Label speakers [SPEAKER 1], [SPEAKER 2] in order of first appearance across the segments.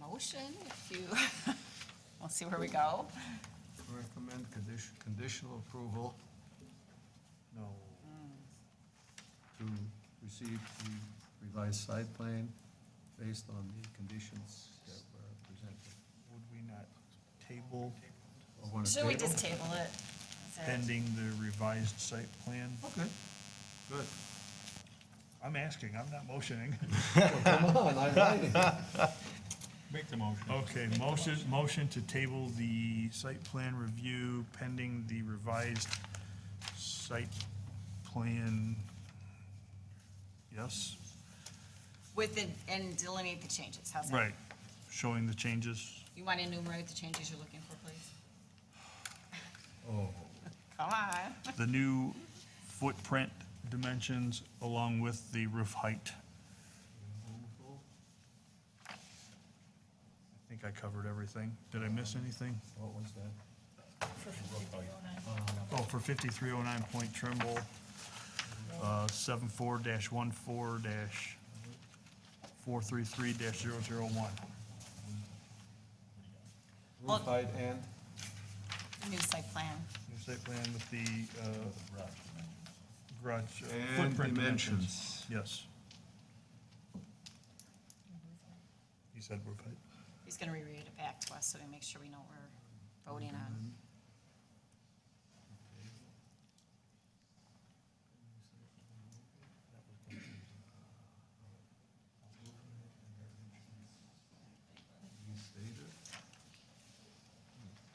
[SPEAKER 1] motion if you, we'll see where we go.
[SPEAKER 2] Recommend condition, conditional approval. No. To receive the revised site plan based on the conditions that were presented.
[SPEAKER 3] Would we not table
[SPEAKER 2] Or wanna
[SPEAKER 1] Should we
[SPEAKER 2] table?
[SPEAKER 1] just table it? Is it-
[SPEAKER 3] pending the revised site plan?
[SPEAKER 2] Okay, good.
[SPEAKER 3] I'm asking, I'm not motioning.
[SPEAKER 2] Come on, I'm waiting.
[SPEAKER 4] Make the motion.
[SPEAKER 3] Okay, motion, motion to table the site plan review pending the revised site plan. Yes,
[SPEAKER 1] With the, and delineate the changes, how's that?
[SPEAKER 3] right, showing the changes.
[SPEAKER 1] You want to enumerate the changes you're looking for, please?
[SPEAKER 2] Oh,
[SPEAKER 1] Come on.
[SPEAKER 3] The new footprint dimensions along with the roof height. I think I covered everything. Did I miss anything?
[SPEAKER 2] what was that?
[SPEAKER 3] Oh, for fifty-three oh nine Point Trimble, uh, seven four dash one four dash four three three dash zero zero one.
[SPEAKER 1] Well-
[SPEAKER 2] Roof height and?
[SPEAKER 1] New site plan.
[SPEAKER 3] New site plan with the, uh, garage uh,
[SPEAKER 2] And
[SPEAKER 3] footprint dimensions.
[SPEAKER 2] dimensions.
[SPEAKER 3] Yes. He said we're, put-
[SPEAKER 1] He's going to reread it back to us so we make sure we know what we're voting on.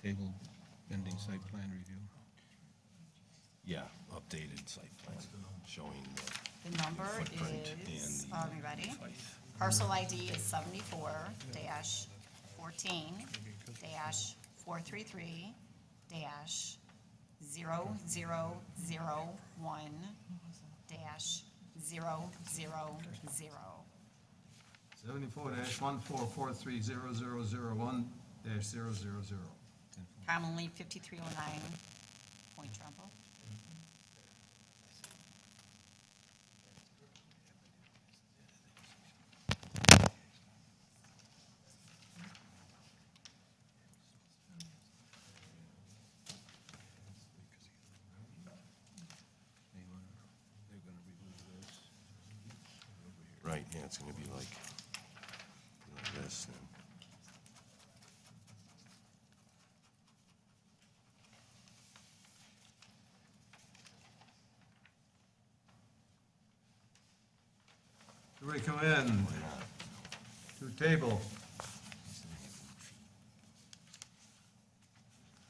[SPEAKER 4] Table pending site plan review. Yeah, updated site plan showing the
[SPEAKER 3] Mm-hmm.
[SPEAKER 1] The number
[SPEAKER 4] footprint
[SPEAKER 1] is,
[SPEAKER 4] and the.
[SPEAKER 1] are we ready? Parcel ID is seventy-four dash fourteen dash four three three dash zero zero zero one dash zero zero zero.
[SPEAKER 2] Seventy-four dash one four four three zero zero zero one dash zero zero zero.
[SPEAKER 1] Commonly fifty-three oh nine Point Trumbull.
[SPEAKER 4] Right, yeah, it's gonna be like, like this and.
[SPEAKER 2] To recommend to table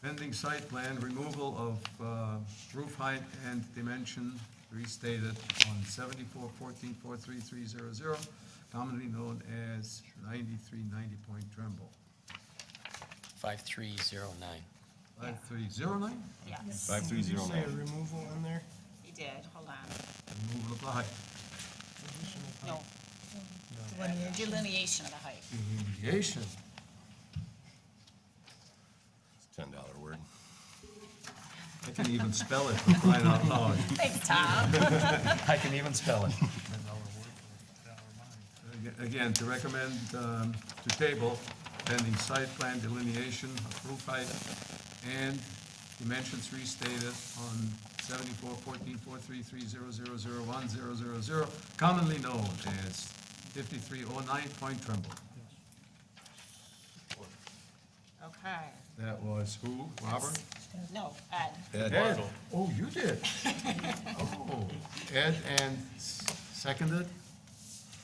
[SPEAKER 2] pending site plan removal of uh, roof height and dimension restated on seventy-four fourteen four three three zero zero, commonly known as ninety-three ninety Point Tremble.
[SPEAKER 5] 5309.
[SPEAKER 2] Five three zero nine,
[SPEAKER 1] Yes,
[SPEAKER 4] Five three zero
[SPEAKER 6] Say a
[SPEAKER 4] nine.
[SPEAKER 6] removal in there,
[SPEAKER 1] he did, hold on.
[SPEAKER 2] removal of the height.
[SPEAKER 6] additional
[SPEAKER 1] No. Delineation of the height.
[SPEAKER 2] Mediation.
[SPEAKER 4] Ten dollar word.
[SPEAKER 2] I can even spell it for crying out loud.
[SPEAKER 1] Thanks, Tom.
[SPEAKER 2] I can even spell it.
[SPEAKER 3] ten dollar word for dollar mine.
[SPEAKER 2] Again, to recommend um, to table pending site plan delineation of roof height and dimensions restated on seventy-four fourteen four three three zero zero zero one zero zero zero, commonly known as fifty-three oh nine Point Trumbull.
[SPEAKER 1] Okay.
[SPEAKER 2] That was who, Robert?
[SPEAKER 1] No, Ed,
[SPEAKER 2] Ed. Oh, you did? Oh, Ed and seconded?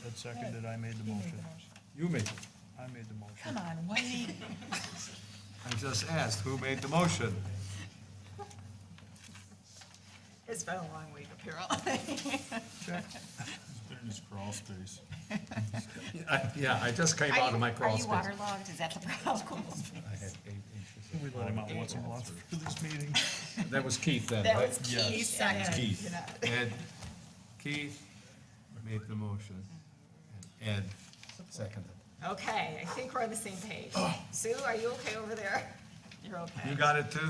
[SPEAKER 3] Ed seconded, I made the motion.
[SPEAKER 2] You made it.
[SPEAKER 3] I made the motion.
[SPEAKER 1] come on, Wendy.
[SPEAKER 2] I just asked who made the motion.
[SPEAKER 1] It's been a long week apparently.
[SPEAKER 2] I- Yeah, I just came out of my crawl
[SPEAKER 1] Are
[SPEAKER 2] space.
[SPEAKER 1] you waterlogged? Is that the problem?
[SPEAKER 2] I had eight inches of
[SPEAKER 3] We let him out
[SPEAKER 2] water.
[SPEAKER 3] once a month for this meeting.
[SPEAKER 2] That was Keith then,
[SPEAKER 1] That
[SPEAKER 2] right?
[SPEAKER 1] was key second.
[SPEAKER 4] Keith.
[SPEAKER 2] Ed, Keith made the motion, and Ed seconded.
[SPEAKER 1] Okay, I think we're on the same page.
[SPEAKER 2] Oh.
[SPEAKER 1] Sue, are you okay over there? You're okay.
[SPEAKER 2] You got it too?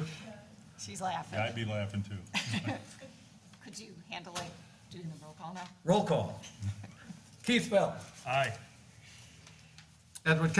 [SPEAKER 1] She's laughing.
[SPEAKER 7] I'd be laughing too.
[SPEAKER 1] Could you handle it doing the roll call now?
[SPEAKER 2] Roll call. Keith Bell.
[SPEAKER 3] Aye.
[SPEAKER 2] Edward Kelly.